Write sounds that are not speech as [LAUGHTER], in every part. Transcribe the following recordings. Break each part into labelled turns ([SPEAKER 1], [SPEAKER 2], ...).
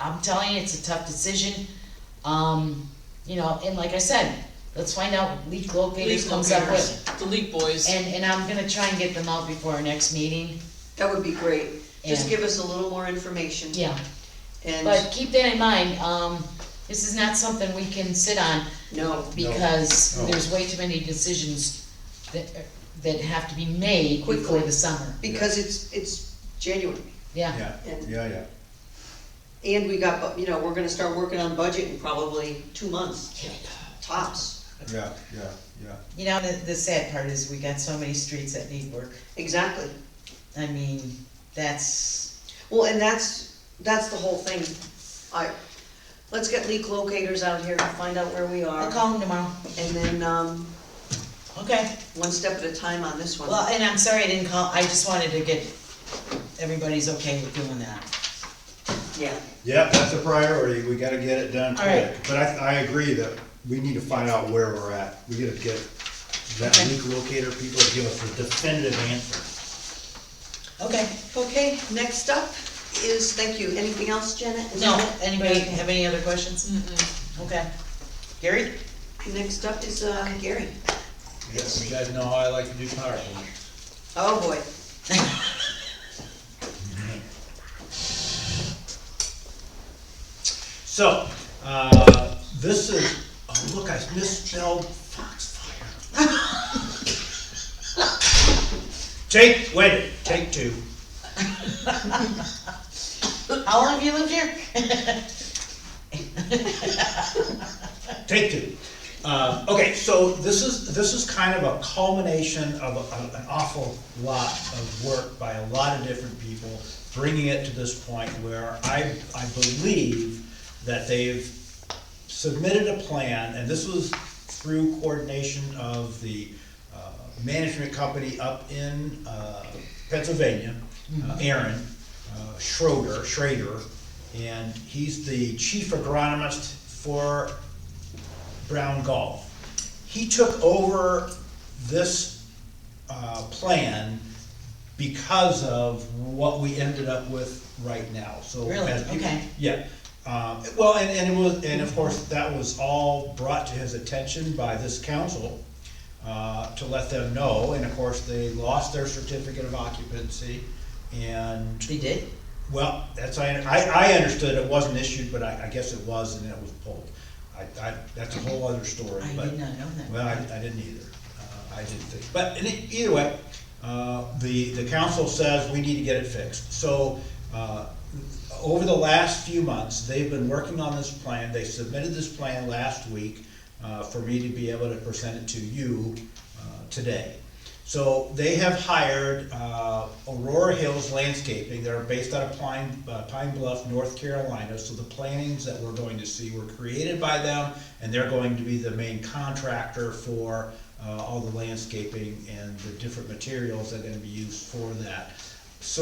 [SPEAKER 1] I'm telling you, it's a tough decision. Um, you know, and like I said, let's find out what leak locators
[SPEAKER 2] Leak
[SPEAKER 1] comes up
[SPEAKER 2] locators,
[SPEAKER 1] with.
[SPEAKER 2] the leak boys,
[SPEAKER 1] And, and I'm gonna try and get them out before our next meeting,
[SPEAKER 3] That would be great. Just
[SPEAKER 1] Yeah.
[SPEAKER 3] give us a little more information.
[SPEAKER 1] yeah. But
[SPEAKER 3] And,
[SPEAKER 1] keep that in mind, um, this is not something we can sit on
[SPEAKER 3] no,
[SPEAKER 1] because
[SPEAKER 4] No.
[SPEAKER 1] there's way too many decisions that, that have to be made before
[SPEAKER 3] Quickly.
[SPEAKER 1] the summer,
[SPEAKER 3] because it's, it's January.
[SPEAKER 1] yeah.
[SPEAKER 4] Yeah, yeah, yeah.
[SPEAKER 3] And we got, bu- you know, we're gonna start working on budget in probably two months, tops.
[SPEAKER 4] Yeah, yeah, yeah.
[SPEAKER 5] You know, the, the sad part is we got so many streets that need work.
[SPEAKER 3] Exactly.
[SPEAKER 5] I mean, that's,
[SPEAKER 3] Well, and that's, that's the whole thing. I, let's get leak locators out here and find out where we
[SPEAKER 1] I'll
[SPEAKER 3] are.
[SPEAKER 1] call them tomorrow,
[SPEAKER 3] And then, um,
[SPEAKER 5] okay.
[SPEAKER 3] one step at a time on this one.
[SPEAKER 5] Well, and I'm sorry I didn't call, I just wanted to get, everybody's okay with doing that.
[SPEAKER 3] Yeah,
[SPEAKER 4] Yeah, that's a priority, we gotta get it done
[SPEAKER 1] All right.
[SPEAKER 4] quick. But I, I agree that we need to find out where we're at. We gotta get that
[SPEAKER 1] Okay.
[SPEAKER 4] leak locator people to give us a definitive answer.
[SPEAKER 5] Okay.
[SPEAKER 3] okay, next up is, thank you, anything else, Janet? Is
[SPEAKER 5] No,
[SPEAKER 3] that it?
[SPEAKER 5] anybody have any other questions? Okay. Gary?
[SPEAKER 3] Next up is, uh, Gary.
[SPEAKER 6] Yes, you guys know how I like to do PowerPoints.
[SPEAKER 3] Oh, boy.
[SPEAKER 6] So, uh, this is, oh, look, I misspelled Foxfire. [LAUGHS] Take, wait, take two.
[SPEAKER 5] How long have you lived here? [LAUGHS]
[SPEAKER 6] Take two. Uh, okay, so this is, this is kind of a culmination of a- an awful lot of work by a lot of different people, bringing it to this point where I, I believe that they've submitted a plan, and this was through coordination of the uh, management company up in uh, Pennsylvania, uh, Aaron uh, Schroeder, Schrader, and he's the chief agronomist for Brown Golf. He took over this uh, plan because of what we ended up with right now, so.
[SPEAKER 5] Really?
[SPEAKER 6] as people-
[SPEAKER 5] Okay.
[SPEAKER 6] Yeah, um, well, and, and it was, and of course, that was all brought to his attention by this council, uh, to let them know, and of course, they lost their certificate of occupancy, and,
[SPEAKER 5] They did?
[SPEAKER 6] well, that's, I, I, I understood it wasn't issued, but I, I guess it was, and it was pulled. I, I, that's a whole other story,
[SPEAKER 5] I did
[SPEAKER 6] but.
[SPEAKER 5] not know that.
[SPEAKER 6] Well, I, I didn't either, uh, I didn't think, but in e- either way, uh, the, the council says we need to get it fixed. So, uh, over the last few months, they've been working on this plan, they submitted this plan last week uh, for me to be able to present it to you uh, today. So they have hired uh, Aurora Hills Landscaping, they're based out of Pine, uh, Pine Bluff, North Carolina. So the plantings that we're going to see were created by them, and they're going to be the main contractor for uh, all the landscaping and the different materials that are gonna be used for that.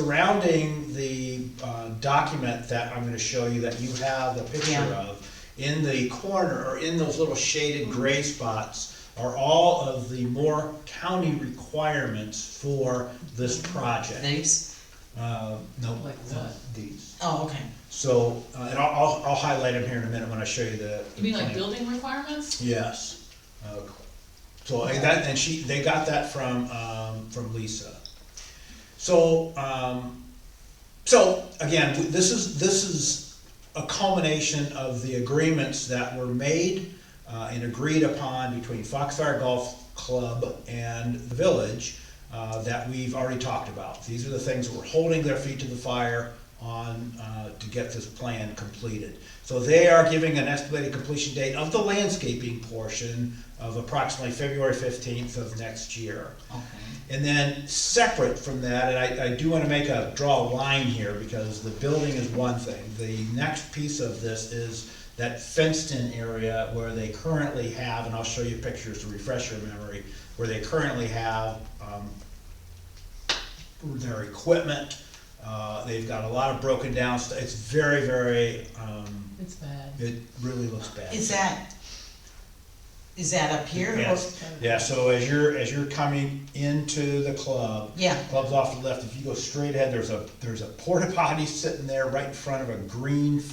[SPEAKER 6] Surrounding the uh, document that I'm gonna show you, that you have a picture
[SPEAKER 5] Yeah.
[SPEAKER 6] of, in the corner, or in those little shaded gray spots, are all of the more county requirements for this project.
[SPEAKER 5] Names?
[SPEAKER 6] Uh, no,
[SPEAKER 2] Like
[SPEAKER 6] uh,
[SPEAKER 2] what?
[SPEAKER 6] these.
[SPEAKER 5] Oh, okay.
[SPEAKER 6] So, uh, and I'll, I'll, I'll highlight them here in a minute when I show you the.
[SPEAKER 2] you mean like
[SPEAKER 6] the plan.
[SPEAKER 2] building requirements?
[SPEAKER 6] Yes. Uh, So, and that, and she, they got that from, um, from Lisa. So, um, so, again, w- this is, this is a culmination of the agreements that were made uh, and agreed upon between Foxfire Golf Club and the village uh, that we've already talked about. These are the things that were holding their feet to the fire on, uh, to get this plan completed. So they are giving an estimated completion date of the landscaping portion of approximately February fifteenth of next year. And then separate from that, and I, I do wanna make a, draw a line here, because the building is one thing. The next piece of this is that fenced-in area where they currently have, and I'll show you pictures to refresh your memory, where they currently have, um, their equipment. Uh, they've got a lot of broken down, st- it's very, very, um,
[SPEAKER 2] It's bad.
[SPEAKER 6] it really looks bad.
[SPEAKER 5] Is that, is that up here? Oh, or-
[SPEAKER 6] Yes, yeah, so as you're, as you're coming into the club.
[SPEAKER 5] Yeah.
[SPEAKER 6] Club's off to the left, if you go straight ahead, there's a, there's a porta potty sitting there right in front of a green